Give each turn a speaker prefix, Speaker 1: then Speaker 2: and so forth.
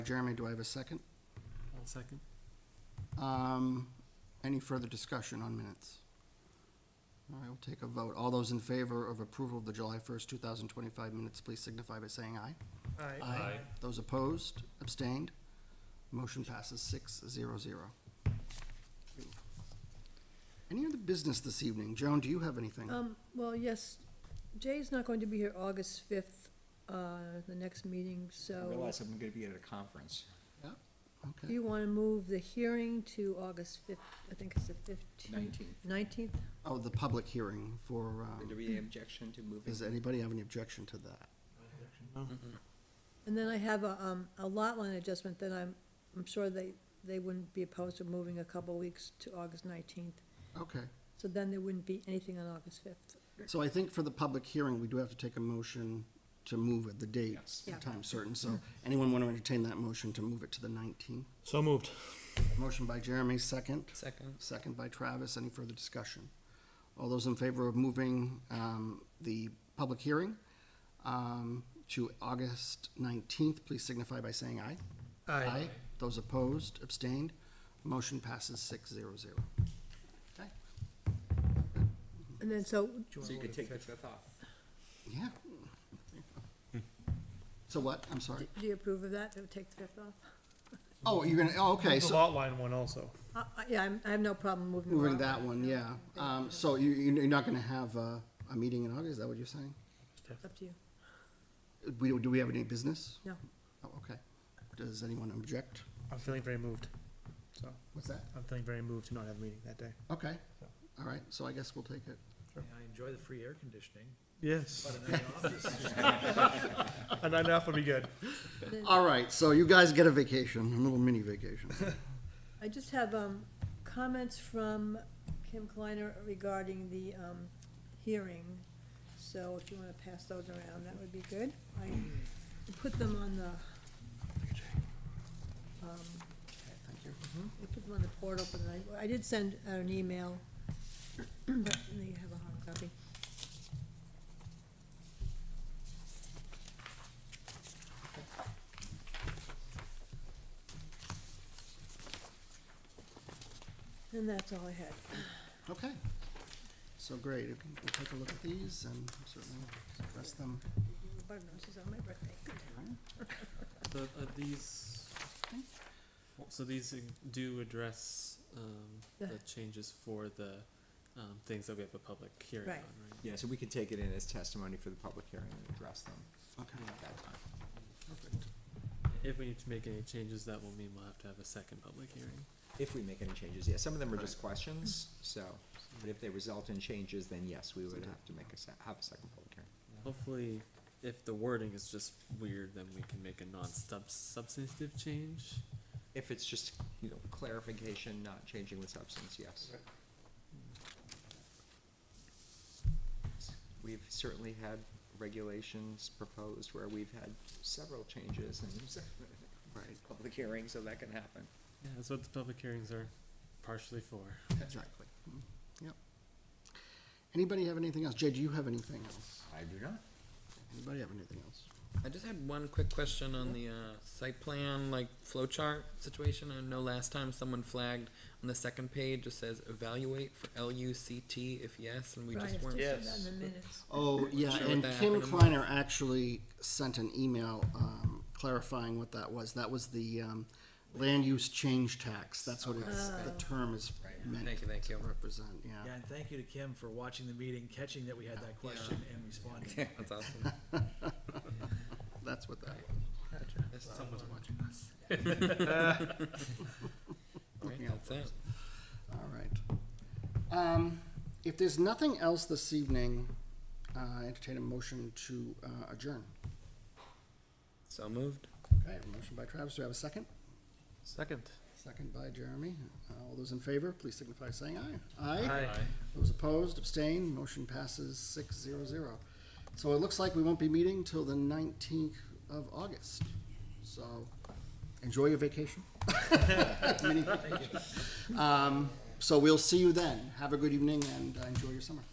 Speaker 1: Jeremy, do I have a second?
Speaker 2: I'll second.
Speaker 1: Um, Any further discussion on minutes? All right, we'll take a vote. All those in favor of approval of the July 1st, 2025 minutes, please signify by saying aye.
Speaker 2: Aye.
Speaker 1: Those opposed, abstained, motion passes six zero zero. Any other business this evening? Joan, do you have anything?
Speaker 3: Um, well, yes, Jay's not going to be here August fifth, uh, the next meeting,
Speaker 4: I
Speaker 3: so
Speaker 4: realize I'm gonna be at a conference.
Speaker 3: do
Speaker 1: Okay,
Speaker 3: you wanna move the hearing to August fifth, I think it's the fifteenth?
Speaker 4: 19th.
Speaker 3: Nineteenth?
Speaker 1: oh, the public hearing for, um,
Speaker 4: Would there be any objection to moving?
Speaker 1: does anybody have any objection to that?
Speaker 3: And then I have a, um, a lot line adjustment that I'm, I'm sure they, they wouldn't be opposed to moving a couple weeks to August nineteenth.
Speaker 1: Okay.
Speaker 3: So then there wouldn't be anything on August fifth.
Speaker 1: So I think for the public hearing, we do have to take a motion to move it, the date,
Speaker 4: Yes.
Speaker 1: the
Speaker 3: Yeah.
Speaker 1: time certain. So anyone want to entertain that motion to move it to the 19th?
Speaker 2: So moved.
Speaker 1: Motion by Jeremy, second.
Speaker 2: Second.
Speaker 1: Second by Travis. Any further discussion? All those in favor of moving um, the public hearing um, to August 19th, please signify by saying aye. Those opposed, abstained, motion passes six zero zero. Okay,
Speaker 3: And then, so,
Speaker 4: So you could take the fifth off.
Speaker 1: yeah.
Speaker 2: Hmm.
Speaker 1: So what? I'm sorry.
Speaker 3: do you approve of that? It would take the fifth off?
Speaker 1: Oh, you're gonna, oh, okay,
Speaker 2: The
Speaker 1: so
Speaker 2: lot line one also.
Speaker 3: Uh, uh, yeah, I'm, I have no problem moving.
Speaker 1: moving
Speaker 3: along.
Speaker 1: that one, yeah. Um, so you, you- you're not gonna have a, a meeting in August, is that what you're saying?
Speaker 3: Up to you.
Speaker 1: We, do we have any business?
Speaker 3: No.
Speaker 1: Oh, okay. Does anyone object?
Speaker 2: I'm feeling very moved. So
Speaker 1: What's that?
Speaker 2: I'm feeling very moved to not have a meeting that day.
Speaker 1: Okay, all right, so I guess we'll take it.
Speaker 5: Yeah, I enjoy the free air conditioning,
Speaker 2: Yes.
Speaker 5: but in the office,
Speaker 2: And enough will be good.
Speaker 1: All right, so you guys get a vacation, a little mini vacation.
Speaker 3: I just have, um, comments from Kim Kleiner regarding the, um, hearing. So if you wanna pass those around, that would be good. I put them on the, um,
Speaker 1: Thank you.
Speaker 3: I put them on the portal, but I, I did send out an email, but you have a hard copy. And that's all I had.
Speaker 1: Okay, so great, you can, we'll take a look at these and certainly address them.
Speaker 3: Button is on my birthday.
Speaker 6: The, uh, these, so these do address, um,
Speaker 3: The-
Speaker 6: the changes for the, um, things that we have a public hearing on,
Speaker 3: Right.
Speaker 6: right?
Speaker 4: Yeah, so we could take it in as testimony for the public hearing and address them
Speaker 1: Okay,
Speaker 4: at that time.
Speaker 1: perfect.
Speaker 6: If we need to make any changes, that will mean we'll have to have a second public hearing.
Speaker 4: If we make any changes, yeah, some of them are just questions, so, but if they result in changes, then yes, we would have to make a se- have a second public hearing.
Speaker 6: Hopefully, if the wording is just weird, then we can make a non-substantive change.
Speaker 4: If it's just, you know, clarification, not changing the substance, yes. We've certainly had regulations proposed where we've had several changes and
Speaker 1: Right,
Speaker 4: public hearings, so that can happen.
Speaker 6: Yeah, that's what the public hearings are partially for.
Speaker 1: exactly. Mm, Yep. Anybody have anything else? Jay, do you have anything else?
Speaker 4: I do not.
Speaker 1: Anybody have anything else?
Speaker 7: I just had one quick question on the uh, site plan, like flowchart situation. I know last time someone flagged on the second page, it says evaluate for L U C T if yes, and we
Speaker 3: Right, I
Speaker 7: just
Speaker 3: still said
Speaker 7: weren't.
Speaker 3: that in the minutes.
Speaker 1: Oh, yeah,
Speaker 7: Sure what
Speaker 1: and
Speaker 7: that
Speaker 1: Kim
Speaker 7: acronym
Speaker 1: Kleiner actually sent an email um, clarifying what that was. That was the um, land use change tax. That's what it's, the term is meant
Speaker 7: Thank you, thank
Speaker 1: to
Speaker 7: you.
Speaker 1: represent, yeah.
Speaker 5: yeah, and thank you to Kim for watching the meeting, catching that we had that question and responding.
Speaker 7: That's awesome.
Speaker 1: That's what that
Speaker 7: That's
Speaker 6: Someone's watching.
Speaker 7: right,
Speaker 1: looking out
Speaker 7: that's it.
Speaker 1: was. All right. Um, If there's nothing else this evening, uh, entertain a motion to uh, adjourn.
Speaker 7: So moved.
Speaker 1: Okay, a motion by Travis. Do we have a second?
Speaker 2: Second.
Speaker 1: Second by Jeremy. Uh, All those in favor, please signify by saying aye. Aye.
Speaker 2: Aye.
Speaker 1: Those opposed, abstained, motion passes six zero zero. So it looks like we won't be meeting till the nineteenth of August. So enjoy your vacation. Mini vacation. Um, so we'll see you then. Have a good evening and uh, enjoy your summer.